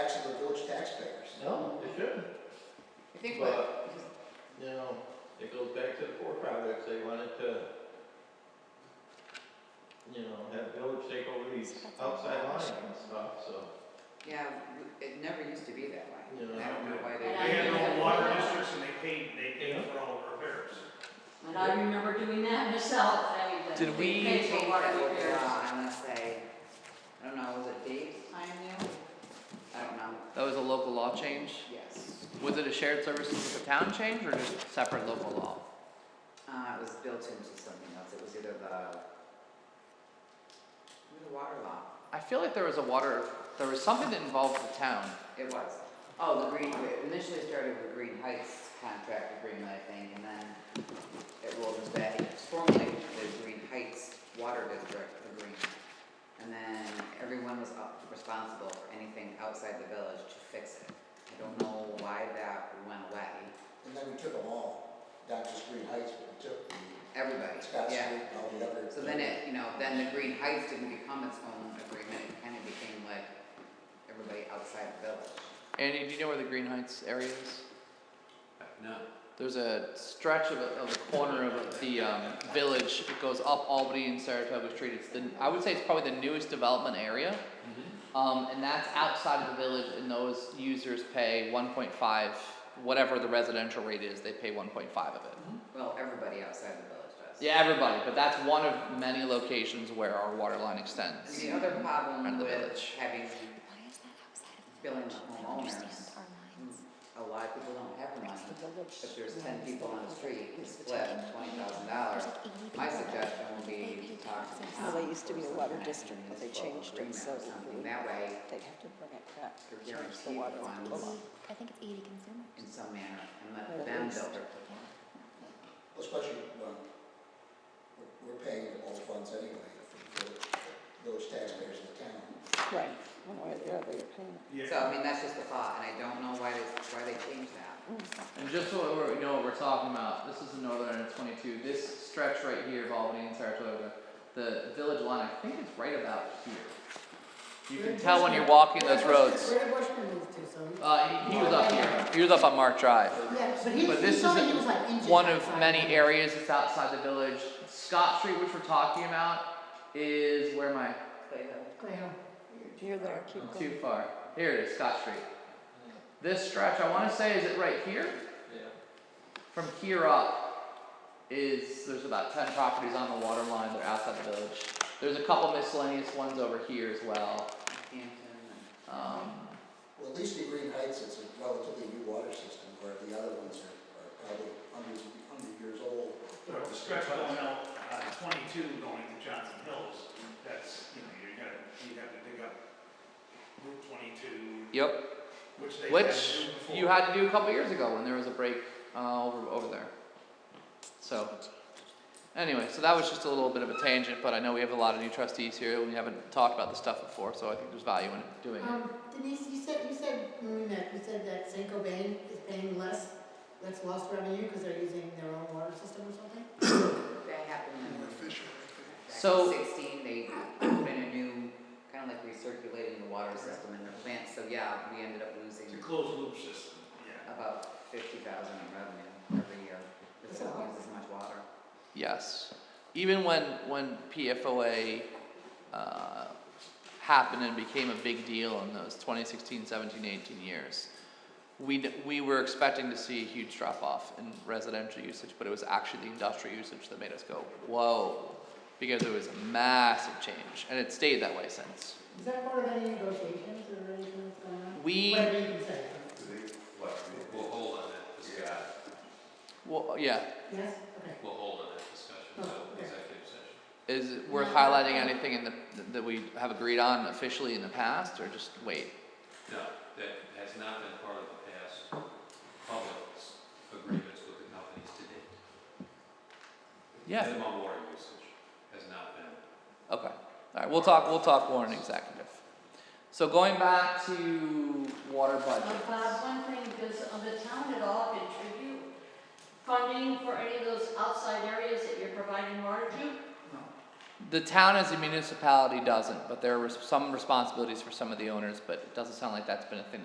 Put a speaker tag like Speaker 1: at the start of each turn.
Speaker 1: think what,
Speaker 2: But, you know, it goes back to the four projects, they wanted to, you know, have village take over these outside lines and stuff, so.
Speaker 1: yeah, w- it never used to be that way.
Speaker 2: Yeah.
Speaker 1: And I don't know why
Speaker 3: And
Speaker 4: They
Speaker 3: I
Speaker 1: they.
Speaker 4: had their own
Speaker 3: remember-
Speaker 4: water districts and they paid, they paid
Speaker 2: Yeah.
Speaker 4: for all the repairs.
Speaker 3: And I remember doing that myself, I mean, the
Speaker 5: Did we-
Speaker 3: big paper water
Speaker 1: that with
Speaker 3: repairs.
Speaker 5: uh,
Speaker 1: law Unless they, I don't know, was it Dave?
Speaker 3: I knew,
Speaker 1: I don't know,
Speaker 5: That was a local law change.
Speaker 1: yes.
Speaker 5: Was it a shared services with the town change or just separate local law?
Speaker 1: Uh, it was built into something else, it was either the, the water law,
Speaker 5: I feel like there was a water, there was something that involved the town.
Speaker 1: it was. Oh, the green, it initially started with Green Heights contract agreement, I think, and then it rolled into that, it's formerly the Green Heights Water District agreement. And then everyone was up- responsible for anything outside the village to fix it. I don't know why that went away,
Speaker 6: And then we took them all, not just Green Heights, but we took the
Speaker 1: everybody,
Speaker 6: Scott Street
Speaker 1: yeah.
Speaker 6: and all the other.
Speaker 1: So then it, you know, then the Green Heights didn't become its own agreement, it kind of became like everybody outside the village.
Speaker 5: Andy, do you know where the Green Heights area is?
Speaker 2: No.
Speaker 5: There's a stretch of a, of a corner of the um, village. It goes up Albany and Saratoga Street. It's the I would say it's probably the newest development area, um, and that's outside of the village. And those users pay 1.5, whatever the residential rate is. They pay 1.5 of it.
Speaker 1: Well, everybody outside the village does.
Speaker 5: Yeah, everybody, but that's one of many locations where our water line
Speaker 1: And
Speaker 5: extends.
Speaker 1: The other problem
Speaker 5: Around the
Speaker 1: with
Speaker 5: village.
Speaker 1: having,
Speaker 7: Why is that outside of the
Speaker 1: Billing
Speaker 7: village?
Speaker 1: the
Speaker 7: I don't
Speaker 1: homeowners. Mm,
Speaker 7: understand our minds.
Speaker 1: a lot of people don't have money,
Speaker 7: It's the village.
Speaker 1: if there's ten
Speaker 7: lines
Speaker 1: people
Speaker 7: that
Speaker 1: on the
Speaker 7: are
Speaker 1: street,
Speaker 7: like
Speaker 1: you
Speaker 7: this, which
Speaker 1: split
Speaker 7: I don't
Speaker 1: twenty
Speaker 7: know.
Speaker 1: thousand dollars,
Speaker 7: There's like 80
Speaker 1: my
Speaker 7: people that-
Speaker 1: suggestion would
Speaker 7: they
Speaker 1: be
Speaker 7: pay
Speaker 1: to talk to the
Speaker 7: taxes.
Speaker 1: town.
Speaker 8: Well, they used to
Speaker 1: for
Speaker 8: be a
Speaker 1: some
Speaker 8: water
Speaker 1: kind of
Speaker 8: district, but they
Speaker 1: municipal
Speaker 8: changed it,
Speaker 1: agreement or
Speaker 8: so we-
Speaker 1: something. That way,
Speaker 8: They'd have to bring it back,
Speaker 1: They're
Speaker 8: change
Speaker 1: guaranteed
Speaker 8: the water to
Speaker 1: funds.
Speaker 8: Pula.
Speaker 7: I think it's 80 consumers.
Speaker 1: in some manner, and let
Speaker 8: Or at
Speaker 1: them
Speaker 8: least-
Speaker 1: build their.
Speaker 6: Especially when we're- we're paying all the funds anyway, for the village taxpayers in the town.
Speaker 8: Right, one way or the other, you're paying it.
Speaker 4: Yeah.
Speaker 1: So, I mean, that's just a thought, and I don't know why they, why they changed that.
Speaker 5: And just so we know what we're talking about, this is the northern end of 22. This stretch right here of Albany and Saratoga, the village line, I think it's right about here. You can tell when you're walking those roads.
Speaker 9: Where did Bushman move to, so?
Speaker 5: Uh, he, he was up here. He was up on Mark Drive.
Speaker 9: Yeah, but he,
Speaker 5: But this
Speaker 9: he told
Speaker 5: is
Speaker 9: me he was like inches
Speaker 5: One of
Speaker 9: outside
Speaker 5: many
Speaker 9: the-
Speaker 5: areas that's outside the village. Scott Street, which we're talking about, is where am I?
Speaker 9: Well,
Speaker 8: You're there, keep going.
Speaker 5: Too far. Here it is, Scott Street. This stretch, I want to say, is it right here?
Speaker 2: Yeah.
Speaker 5: From here up is, there's about ten properties on the water line, they're outside the village. There's a couple miscellaneous ones over here as well,
Speaker 1: Hampton and-
Speaker 5: um,
Speaker 6: Well, at least in Green Heights, it's a relatively new water system, where the other ones are, are probably hundreds, hundred years old.
Speaker 4: But the stretch going out, uh, twenty-two going to Johnson Hills, that's, you know, you're gonna, you have to dig up Route twenty-two,
Speaker 5: yep,
Speaker 4: which they had to
Speaker 5: which
Speaker 4: do before.
Speaker 5: you had to do a couple years ago when there was a break, uh, over, over there. So, anyway, so that was just a little bit of a tangent, but I know we have a lot of new trustees here, and we haven't talked about this stuff before, so I think there's value in doing it.
Speaker 9: Um, Denise, you said, you said, when we met, you said that St. Cobain is paying less, that's lost revenue because they're using their own water system or something?
Speaker 1: That happened in.
Speaker 5: So-
Speaker 1: Back in sixteen, they put in a new, kind of like recirculating the water system in their plant, so yeah, we ended up losing
Speaker 4: It's a closed loop system, yeah.
Speaker 1: about fifty thousand in revenue every year. Because they don't use as much water.
Speaker 5: Yes. Even when, when PFOA uh, happened and became a big deal in those 2016, 17, 18 years, we, d- we were expecting to see a huge drop off in residential usage, but it was actually the industrial usage that made us go, whoa, because it was a massive change, and it stayed that way since.
Speaker 9: Is that part of any negotiations or anything that's going on?
Speaker 5: We,
Speaker 9: Whatever you can say,
Speaker 10: We'll hold on that discussion,
Speaker 5: well, yeah,
Speaker 9: yes, okay.
Speaker 10: we'll hold on that discussion
Speaker 9: Oh,
Speaker 10: until
Speaker 9: okay.
Speaker 10: executive session.
Speaker 5: is it worth highlighting anything in the, that we have agreed on officially in the past, or just wait?
Speaker 10: No, that has not been part of the past public s- agreements with the companies to date.
Speaker 5: Yeah.
Speaker 10: Minimum water usage has not been
Speaker 5: Okay, alright, we'll talk, we'll talk more in executive. So going back to water budget.
Speaker 3: Uh, Bob, one thing, does uh, the town at all contribute funding for any of those outside areas that you're providing water to?
Speaker 5: The town as a municipality doesn't, but there were some responsibilities for some of the owners, but it doesn't sound like that's been a thing